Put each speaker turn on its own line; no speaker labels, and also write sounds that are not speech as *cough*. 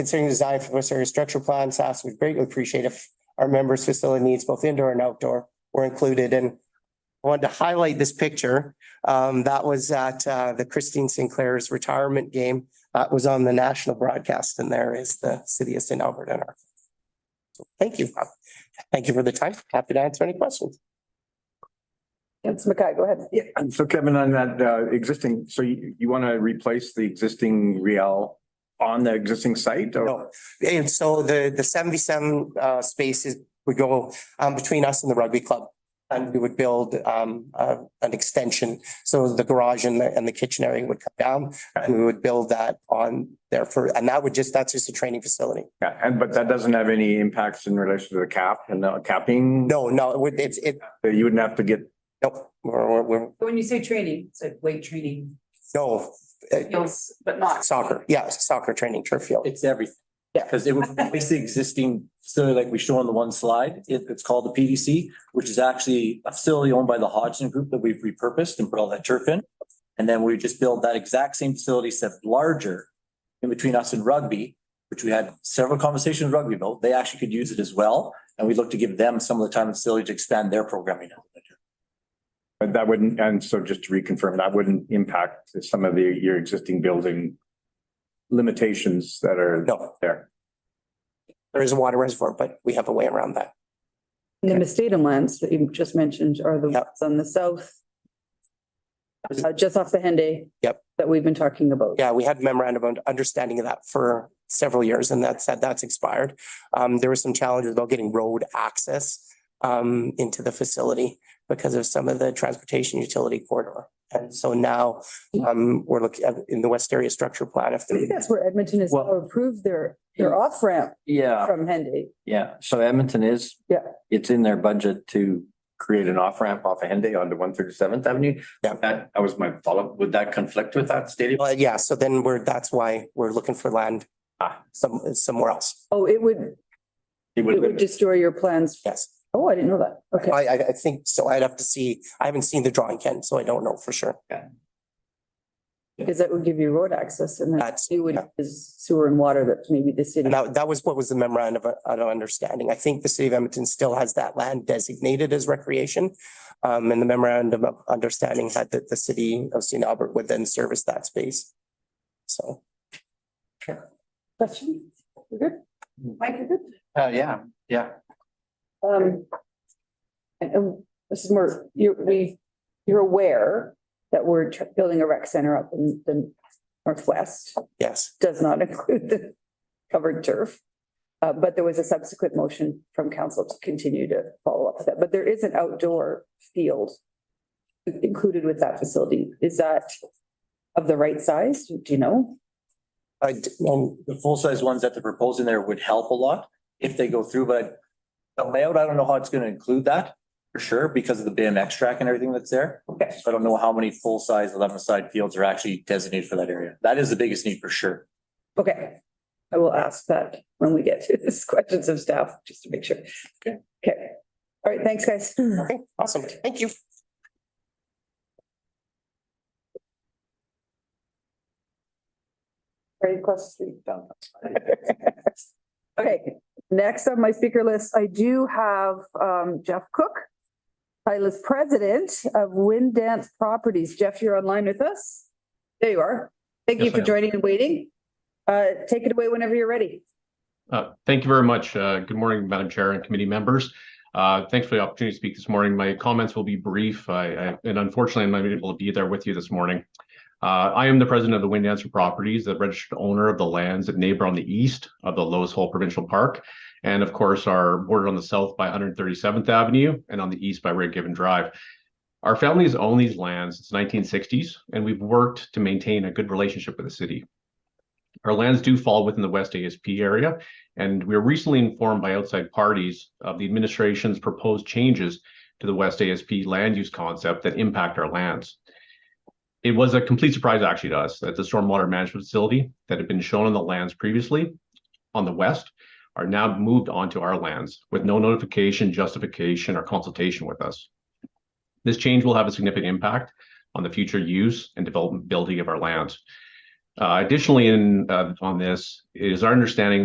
Considering the design for the West Area Structure Plan, SAS would greatly appreciate if our members' facility needs, both indoor and outdoor, were included. And I wanted to highlight this picture. Um, that was at, uh, the Christine Sinclair's retirement game. That was on the national broadcast and there is the city of St. Albert in our. So Thank you. Thank you for the time. Happy to answer any questions.
Councillor Mackay, go ahead.
Yeah, and so Kevin, on that uh existing, so you you want to replace the existing Riel on the existing site or?
No. And so the, the seventy-seven, uh, spaces would go, um, between us and the rugby club. And we would build, um, uh, an extension. So the garage and the, and the kitchen area would come down and we would build that on there for, and that would just, that's just a training facility.
Yeah, and but that doesn't have any impacts in relation to the cap and the capping?
No, no, it would, it's, it,
You wouldn't have to get,
nope, we're, we're- we're,
When you say training, it's like weight training,
no. uh,
skills, but not.
Soccer, yeah, soccer training turf field.
It's everything.
Yeah.
Because it would replace the existing facility like we show on the one slide. It- it's called the PDC, which is actually a facility owned by the Hodgson Group that we've repurposed and put all that turf in. And then we just build that exact same facility, except larger in between us and rugby, which we had several conversations with rugby about. They actually could use it as well. And we'd look to give them some of the time and facility to expand their programming.
but that wouldn't, and so just to reconfirm, that wouldn't impact some of the your existing building limitations that are
No,
there.
there is a water reservoir, but we have a way around that.
And the Mestedon lands that you just mentioned are the
Yep.
ones on the south. uh, just off the Henday.
Yep.
That we've been talking about.
Yeah, we had memorandum of understanding of that for several years and that said, that's expired. Um, there were some challenges about getting road access um, into the facility because of some of the transportation utility corridor. And so now um, we're looking at in the West Area Structure Plan. If
I think that's where Edmonton has
Well-
approved their, their off ramp
Yeah,
from Henday.
yeah. So Edmonton is.
Yeah.
It's in their budget to,
Create an off ramp off of Henday onto one thirty seventh Avenue.
Yeah.
That, that was my follow up. Would that conflict with that stadium?
Well, yeah, so then we're, that's why we're looking for land uh,
Ah.
some, somewhere else.
Oh, it would,
It
it would
would,
destroy your plans.
Yes.
Oh, I didn't know that. Okay.
I, I, I think so. I'd have to see. I haven't seen the drawing, Ken, so I don't know for sure.
Because that would give you road access and then
That's-
you would,
yeah.
is sewer and water that maybe the city.
And that, that was what was the memorandum of, of understanding. I think the city of Edmonton still has that land designated as recreation. Um, and the memorandum of understanding had that the city of St. Albert would then service that space. So,
Question? You good? Mike, you good?
uh, yeah, yeah.
Um. And, and this is more, you, we, you're aware that we're tr- building a rec center up in the northwest,
yes,
does not *laughs* include the covered turf. Uh, but there was a subsequent motion from council to continue to follow up with that, but there is an outdoor field included with that facility. Is that of the right size? Do you know?
I, d- um,
the full-size ones that they're proposing there would help a lot if they go through, but the layout, I don't know how it's gonna include that for sure, because of the BMX track and everything that's there.
Okay.
So I don't know how many full-size eleven-side fields are actually designated for that area. That is the biggest need for sure.
Okay, I will ask that when we get to this questions of staff, just to make sure. Okay. Okay, all right, thanks, guys.
okay, awesome. Thank you.
Right across the street. down. *laughs* Okay, next on my speaker list, I do have um Jeff Cook. Titleist President of Wind Dance Properties. Jeff, you're online with us? There you are. Thank you
Yes, I
for
am.
joining and waiting. Uh, take it away whenever you're ready.
Uh, Thank you very much. Uh, Good morning, Madam Chair and committee members. Uh, Thanks for the opportunity to speak this morning. My comments will be brief, I- I- and unfortunately, I'm not able to be there with you this morning. Uh, I am the president of the Wind Dancer Properties, the registered owner of the lands that neighbor on the east of the Lowe's Hole Provincial Park, and of course, are bordered on the south by 137th Avenue and on the east by Red Given Drive. Our family has owned these lands since 1960s, and we've worked to maintain a good relationship with the city. Our lands do fall within the West ASP area, and we were recently informed by outside parties of the administration's proposed changes to the West ASP land use concept that impact our lands. It was a complete surprise actually to us that the stormwater management facility that had been shown on the lands previously on the west are now moved onto our lands with no notification, justification, or consultation with us. This change will have a significant impact on the future use and developability of our lands. Uh, Additionally, in, uh, on this, it is our understanding